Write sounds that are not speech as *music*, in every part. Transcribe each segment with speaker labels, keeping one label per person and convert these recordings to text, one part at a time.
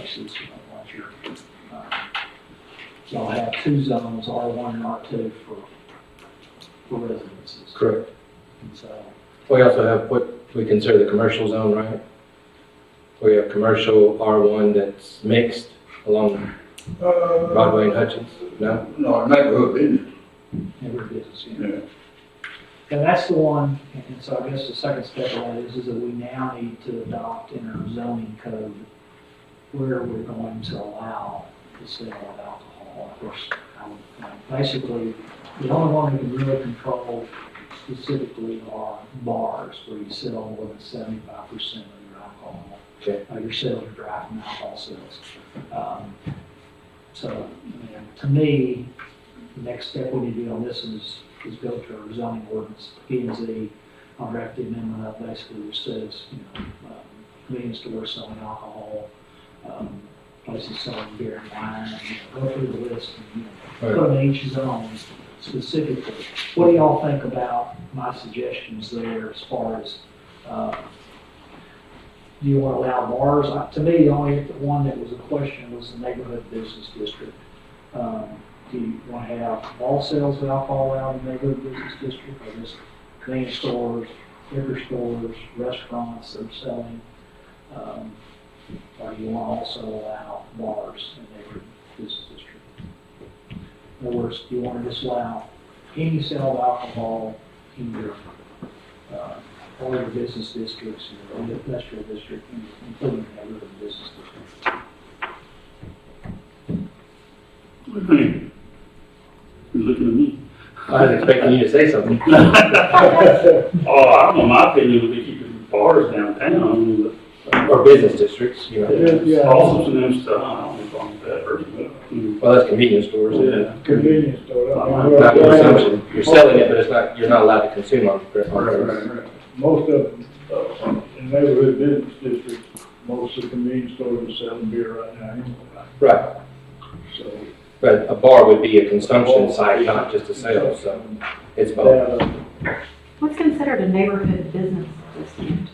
Speaker 1: taxes, you know, like your, uh, y'all have two zones, R one and R two for, for residences.
Speaker 2: Correct.
Speaker 1: And so,
Speaker 2: We also have what we consider the commercial zone, right? We have commercial R1 that's mixed along Broadway and Hutchins, no?
Speaker 3: No, neighborhood business,
Speaker 1: every business unit.
Speaker 3: yeah.
Speaker 1: And that's the one, and so I guess the second step of that is, is that we now need to adopt in our zoning code where we're going to allow the sale of alcohol. Of course, I would, like, basically, the only one we can really control specifically are bars where you sell more than seventy-five percent of your alcohol.
Speaker 2: Okay.
Speaker 1: Uh, Your sales are driving alcohol sales. Um, So, you know, to me, the next step we need to do on this is, is go to our zoning ordinance, P and Z, I'll draft the amendment up basically which says, you know, um, convenience stores selling alcohol, um, places selling beer and wine, you know, go through the list and, you know, put in each zone specifically. What do y'all think about my suggestions there as far as, uh, do you want to allow bars? Uh, To me, the only one that was a question was the neighborhood business district. Um, do you want to have all sales of alcohol allowed in the neighborhood business district, or just convenience stores, liquor stores, restaurants that are selling? Um, Or do you want to also allow bars in the neighborhood business district? In other words, do you want to disallow any sale of alcohol in your, uh, all your business districts, your industrial district, including the neighborhood business district?
Speaker 4: What do you think? You're looking at me.
Speaker 2: I was expecting you to say something.
Speaker 4: Oh, I don't know, my opinion would be keeping bars downtown,
Speaker 2: Or business districts, you know.
Speaker 4: but also some of them stuff, I don't know if I'm that person, but, mm,
Speaker 2: Well, that's convenience stores. isn't it?
Speaker 4: yeah.
Speaker 5: Convenience store. I mean,
Speaker 2: Not
Speaker 5: well,
Speaker 2: consumption. You're selling it, but it's not, you're not allowed to consume on on purpose.
Speaker 5: Most of, them, uh, in neighborhood business districts, most of the convenience stores are selling beer right now anyway.
Speaker 2: Right,
Speaker 5: So.
Speaker 2: but a bar would be a consumption site, not just a sale, so it's both.
Speaker 5: That, uh,
Speaker 6: What's considered a neighborhood business district?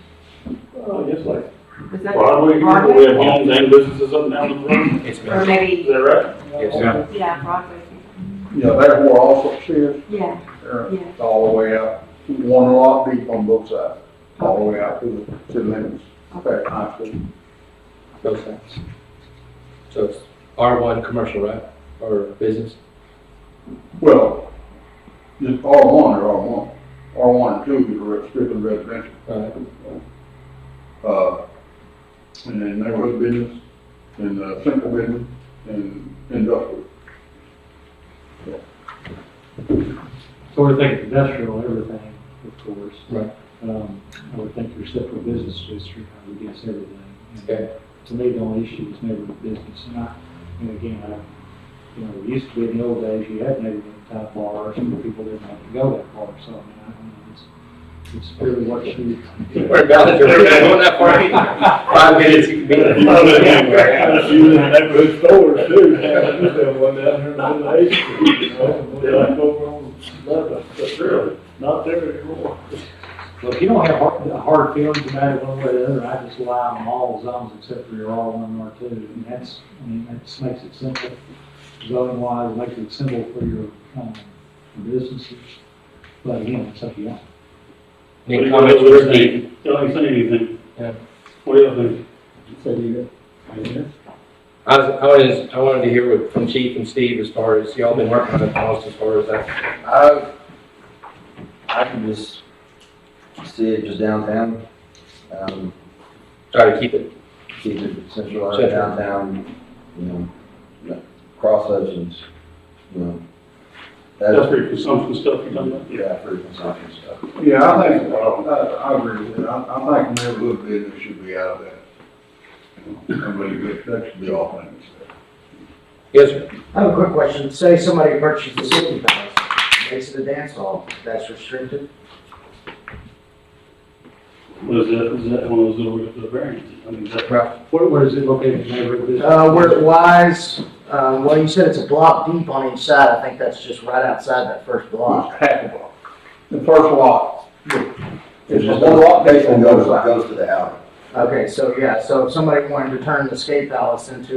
Speaker 4: Oh, yes, like,
Speaker 6: Is that
Speaker 4: Broadway, we have homes and businesses up and down the road,
Speaker 2: It's
Speaker 6: Or
Speaker 2: been,
Speaker 4: is
Speaker 6: maybe,
Speaker 4: that right?
Speaker 2: Yes.
Speaker 6: yeah, Broadway,
Speaker 3: Yeah, that's where all success,
Speaker 6: yeah,
Speaker 3: uh,
Speaker 6: yeah.
Speaker 3: all the way out, one lot deep on both sides, all the way out to the, to the limits. Okay, I see.
Speaker 2: both sides. So it's R1 commercial, right? Or business?
Speaker 3: Well, the R one or R one, R one and two is re- strictly residential.
Speaker 2: Right.
Speaker 3: Uh, and then neighborhood business, and, uh, simple business, and industrial.
Speaker 5: *laughs*
Speaker 1: So we're thinking industrial, everything, of course.
Speaker 2: Right.
Speaker 1: Um, I would think your separate business district, I would guess everything. And
Speaker 2: Okay.
Speaker 1: To me, the only issue is neighborhood business, and I, and again, I, you know, it used to be in the old days, you had neighborhood type bars, and people didn't have to go that far, so I mean, I don't know, it's, it's really what you.
Speaker 2: We're about to, we're going that far. *laughs* Five minutes, you can be
Speaker 5: You know,
Speaker 2: there.
Speaker 5: the neighborhood stores too, have to sell one down here on the eighth street, you know, and one down over on Lebanon, but really, not there anymore.
Speaker 1: Well, if you don't have hard, hard feelings about it one way or the other, I just allow them all zones except for your R one and R two, and that's, I mean, that just makes it simple. Zoning wise, it makes it simple for your, um, businesses, but again, it's up to you.
Speaker 2: Any comments for Steve?
Speaker 4: Don't say anything.
Speaker 2: Yeah.
Speaker 4: What do you think?
Speaker 2: I was, I wanted, I wanted to hear what- from Chief and Steve as far as, y'all been working on the policy as far as that.
Speaker 7: I, I can just see it just downtown, um,
Speaker 2: Try to keep it,
Speaker 7: keep it centralized
Speaker 2: Central.
Speaker 7: downtown, you know, no- cross sections, you know.
Speaker 4: That's
Speaker 7: That's,
Speaker 4: for consumption stuff you're talking about?
Speaker 7: yeah, for consumption stuff.
Speaker 3: Yeah, I think, uh, I, I agree with that. I, I think neighborhood business should be out of that. I believe that, that should be off limits.
Speaker 2: yes, sir.
Speaker 8: I have a quick question. Say somebody purchases a city palace, makes it a dance hall, that's restricted?
Speaker 4: What is that, is that one of those little, little variants? I mean, is that,
Speaker 1: Where, where is it located in neighborhood business?
Speaker 8: Uh, where it lies, uh, well, you said it's a block deep on each side. I think that's just right outside that first block.
Speaker 3: Half a block. The first lot. It's just
Speaker 7: It's just
Speaker 3: one lot,
Speaker 7: one
Speaker 3: they can
Speaker 7: location
Speaker 3: go
Speaker 7: goes,
Speaker 3: to.
Speaker 7: goes to the alley.
Speaker 8: Okay, so yeah, so if somebody wanted to turn the skate palace into